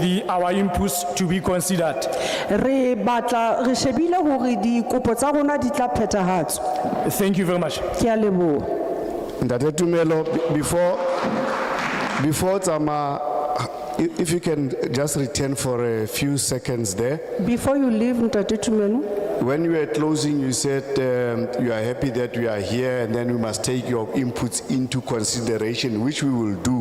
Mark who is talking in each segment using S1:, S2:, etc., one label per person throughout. S1: the, our inputs to be considered.
S2: re batla re shebile gore dikopo tsa rona di tla phethahatswa
S1: Thank you very much.
S2: ke a leboga
S3: Ntate Tumelo, be- before, before Tama, if if you can just return for a few seconds there.
S2: before you leave ntate tumelo
S3: When you were closing, you said um, you are happy that we are here and then we must take your inputs into consideration, which we will do.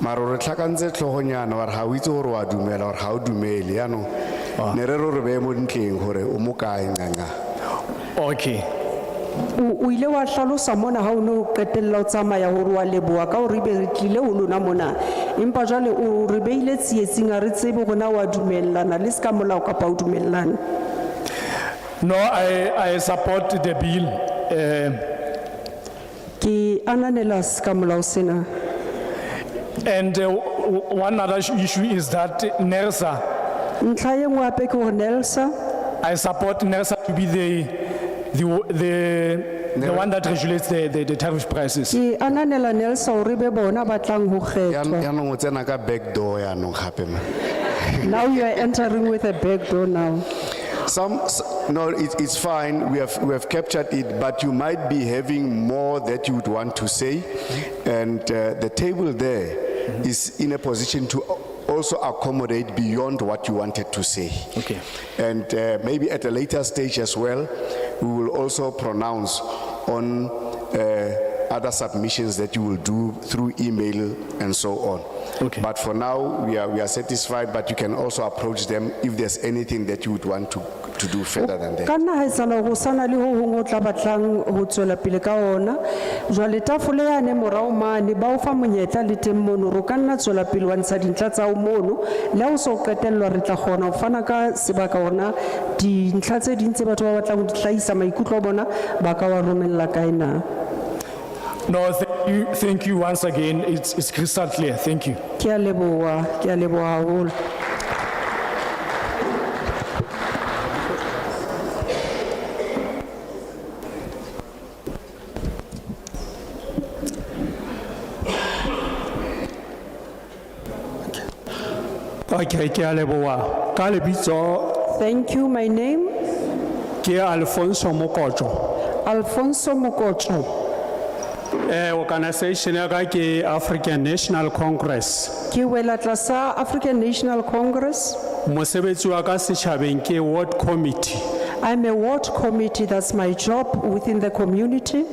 S3: Maro re tlhakantse tlhogonyana wa re ha o itse gore wa dumela or ha o dumele yaanong ne re re o re beye mo dintleng gore o mo kae nqanqa.
S1: Okay.
S2: o o ile wa tlhalosa mona ga o ne o qetelela o tsamaya gore wa leboa ka gore ebe re tlile go lona mona empa jale o re beile tsietsing a re tsebe gona wa dumellana le se ka molao kapa o dumellane
S1: No, I, I support the bill. Uh,
S2: ke ananela se ka molao sena
S1: and uh, w- w- one other issue- issue is that NERSA,
S2: ntlha e nngwe ape ke gore nelsa
S1: I support NERSA to be the, the, w- the, the one that regulates the, the, the tariff prices.
S2: ke ananela nelsa gore be bona ba tlang go
S3: Yan-
S2: kgethwa
S3: yaanong o tsena ka back door yaanong gape ma.
S2: now you are entering with a back door now
S3: Some, s- no, it, it's fine, we have, we have captured it, but you might be having more that you would want to say. And uh, the table there is in a position to al- also accommodate beyond what you wanted to say.
S1: Okay.
S3: And uh, maybe at a later stage as well, we will also pronounce on uh, other submissions that you will do through email and so on.
S1: Okay.
S3: But for now, we are, we are satisfied, but you can also approach them if there's anything that you would want to, to do further than that.
S2: ka nna ga etsala go sana le go gongwe o tla batlang go tswela pele ka ona jwale tafole yane morago mane ba o fa monyetla le teng mono ro ka nna tswela pele wa ntsha dintlha tsao mono le ga o se o qetelelwa re tla kgona go fana ka sebaka ona dintlha tse dintse batho ba batlang go di tlaisa maikutlo a bona ba ka wa romelela kae na
S1: No, thank you, thank you once again. It's, it's crystal clear. Thank you.
S2: ke a leboa ke a leboa gagolo
S4: Okay, ke a leboa. Ka lebitso
S2: thank you my name
S4: ke Alfonso Mokotjo.
S2: alfonso mokotso
S4: Eh organization ya ka ke African National Congress.
S2: ke wela tlasa african national congress
S4: Mosebetsi wa ka setjhabeng ke ward committee.
S2: I'm a ward committee, that's my job within the community.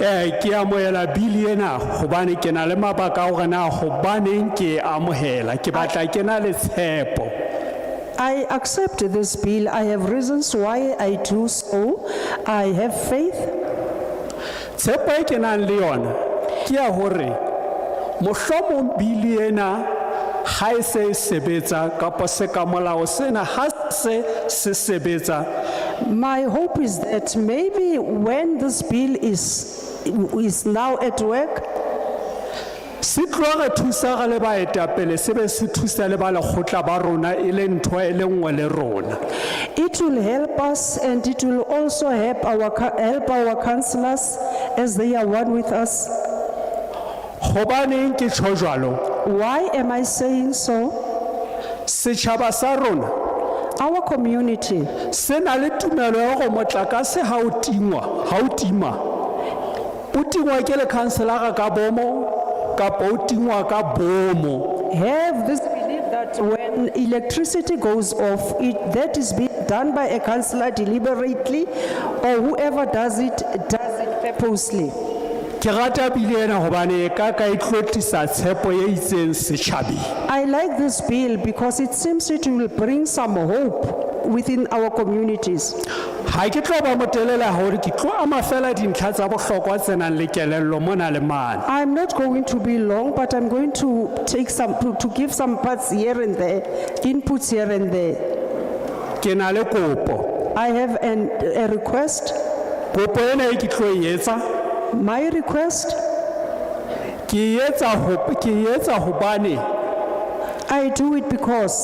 S4: Eh ke amohela bill ena hobane ke na le mabaka a hore na hobaneng ke e amohela. Ke batla ke na le tshepo.
S2: I accept this bill, I have reasons why I do so. I have faith,
S4: Tshepo e ke nang le yona ke ya hore mohlomong bill ena ha e se e sebetsa kapa se ka molao sena ha se se sebetsa
S2: my hope is that maybe when this bill is, is now at work,
S4: se tlo re thusa re le baetapele se be se thusa le ba lekgotla ba rona e le ntho e le nngwe le rona
S2: it will help us and it will also help our, co- help our councillors as they are one with us.
S4: gobaneng ke tsho jalo
S2: Why am I saying so?
S4: setšhaba sa rona
S2: Our community
S4: se na le tumelo ya go motlakase ga o tingwa ga o tima o tingwa ke lekhanselara ka bomo kapa o tingwa ka bomo
S2: have this belief that when electricity goes off, it, that is being done by a councillor deliberately, or whoever does it, does it purposely.
S4: ke rata bile ena gobane e ka ka e tlotisa tshepo ye itseng setšhabeng
S2: I like this bill because it seems it will bring some hope within our communities.
S4: ga ke tlo ba motelela gore ke tlo ama fela dintlha tsa botlhokwa tsenang le kelello mo na le mane
S2: I'm not going to be long, but I'm going to take some, to, to give some parts here and there, inputs here and there.
S4: ke na le kopo
S2: I have an, a request.
S4: kopo ena e ke tlo e etsa
S2: My request,
S4: ke e etsa ho- ke e etsa hobane
S2: I do it because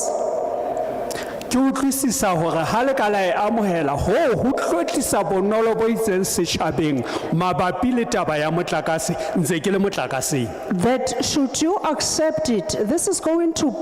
S4: ke utlwisisa hore ha le ka la e amohela hoo ho tlo tlisa bonolo bo itseng setjhabeng mabapi le taba ya motlakase ntse ke le motlakaseng
S2: that should you accept it, this is going to